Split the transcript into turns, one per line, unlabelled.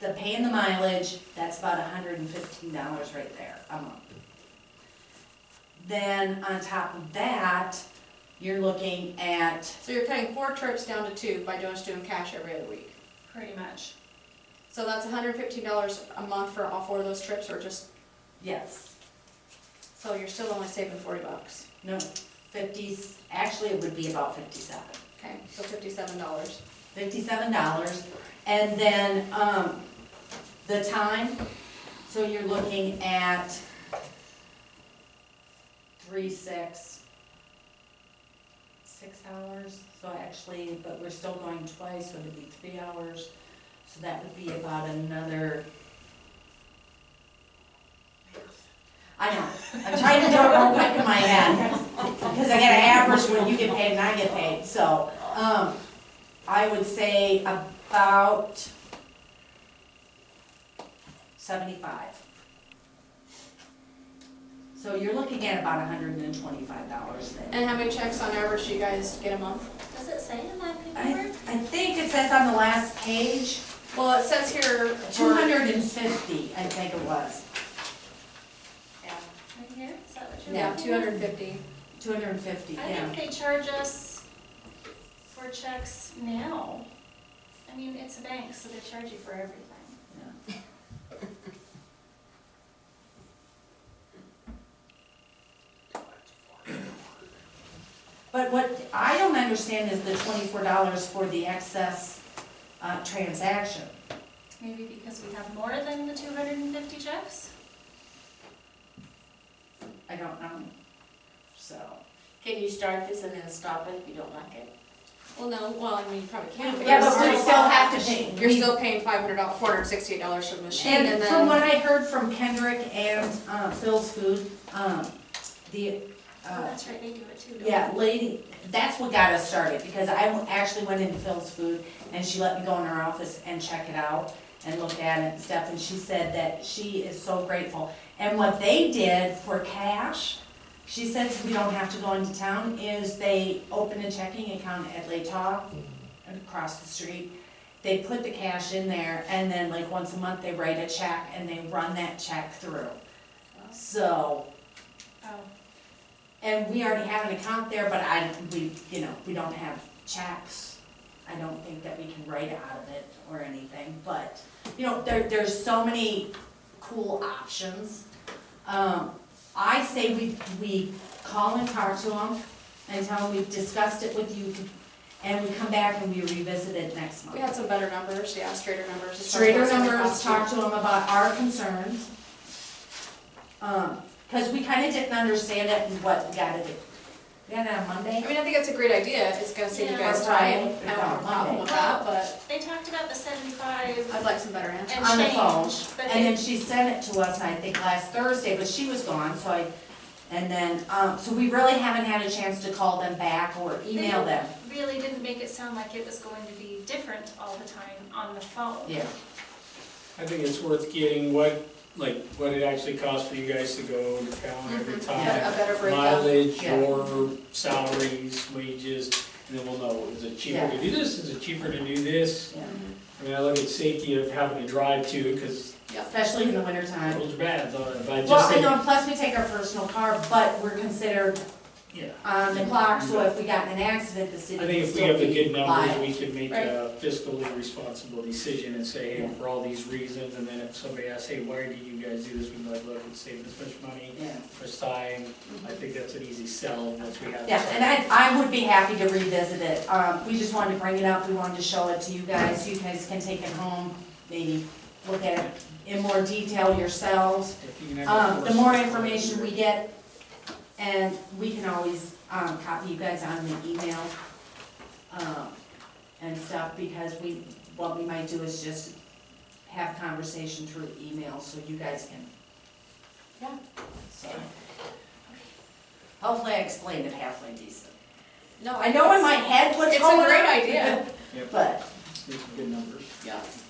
the paying the mileage, that's about hundred and fifteen dollars right there a month. Then on top of that, you're looking at,
So you're cutting four trips down to two by just doing cash every other week.
pretty much.
So that's hundred fifteen dollars a month for all four of those trips, or just,
yes,
so you're still only saving forty bucks.
no, fifties, actually it would be about fifty-seven.
Okay, so fifty-seven dollars.
fifty-seven dollars. And then, um, the time, so you're looking at three, six, six hours, so actually, but we're still going twice, so it'd be three hours. So that would be about another. I know, I'm trying to do it real quick in my head, because I gotta average when you get paid and I get paid, so, um, I would say about seventy-five. So you're looking at about hundred and twenty-five dollars then.
And how many checks on average do you guys get a month?
Does it say in my
I,
paperwork?
I think it says on the last page,
Well, it says here. for-
two hundred and fifty, I think it was,
Right here, is that what you're?
Yeah,
looking
two
at?
hundred and fifty.
two hundred and fifty,
I
yeah.
think they charge us for checks now. I mean, it's a bank, so they charge you for everything.
But what I don't understand is the twenty-four dollars for the excess, uh, transaction.
Maybe because we have more than the two hundred and fifty checks?
I don't know, so.
Can you start this and then stop it if you don't like it?
Well, no, well, I mean, you probably can.
Yeah, but
you're
we still have to pay.
You're still paying five hundred dollars, four hundred and sixty-eight dollars for the machine, and
And from
then,
what I heard from Kendrick and uh, Phil's Food, um, the,
Oh,
uh,
that's right, they do it too. don't they?
yeah, lady, that's what got us started, because I actually went into Phil's Food, and she let me go in her office and check it out, and look at it and stuff, and she said that she is so grateful. And what they did for cash, she said, so we don't have to go into town, is they opened a checking account at Laetah, across the street, they put the cash in there, and then like once a month, they write a check and they run that check through. So,
Oh,
and we already have an account there, but I, we, you know, we don't have checks. I don't think that we can write out of it or anything, but, you know, there, there's so many cool options. Um, I say we, we call and talk to them and tell them we've discussed it with you, and we come back and we revisit it next month.
we had some better numbers, yeah, straighter numbers. as far as
Straighter
what's gonna
numbers,
cost you.
talk to them about our concerns. Um, cause we kinda didn't understand it and what we gotta do. We got it on
I
Monday?
mean, I think it's a great idea, it's gonna save you
Yeah.
guys
Or
time,
Friday.
I don't have a problem with that, but
They talked about the seventy-five
I'd like some better answers.
and
Uh, On the phone,
change, but
And then
they,
she sent it to us, I think, last Thursday, but she was gone, so I, and then, um, so we really haven't had a chance to call them back or email them.
really didn't make it sound like it was going to be different all the time on the phone.
Yeah.
I think it's worth getting what, like, what it actually costs for you guys to go to town
Mm-hmm.
every
A
time.
better breakdown.
Mileage
Yeah.
or salaries, wages, and then we'll know, is it cheaper to do this, is it cheaper to do this?
Yeah.
I mean, I look at safety of having to drive too, because
Especially in the wintertime.
roads are bad, so, but I
Well,
just
I
think,
know, plus we take our personal car, but we're considered
yeah.
on the clock, so if we got in an accident, the
I
city
think
would
if we
still
have the
be
good numbers,
liable.
we can make
Right.
a fiscally responsible decision and say, hey, for all these reasons, and then if somebody asks, hey, why do you guys do this? We might look and save this much money
Yeah.
for time. I think that's an easy sell once we have.
Yeah, and I, I would be happy to revisit it. Um, we just wanted to bring it up, we wanted to show it to you guys, you guys can take it home, maybe look at it in more detail yourselves.
If you can have a
Um, the
force-
more information we get, and we can always, um, copy you guys on the email, um, and stuff, because we, what we might do is just have conversation through email, so you guys can.
Yeah.
So. Hopefully I explained it halfway decent.
No,
I know in my head what's
It's
going on.
a great idea,
Yep,
But,
these are good numbers.
yeah. Mm-hmm.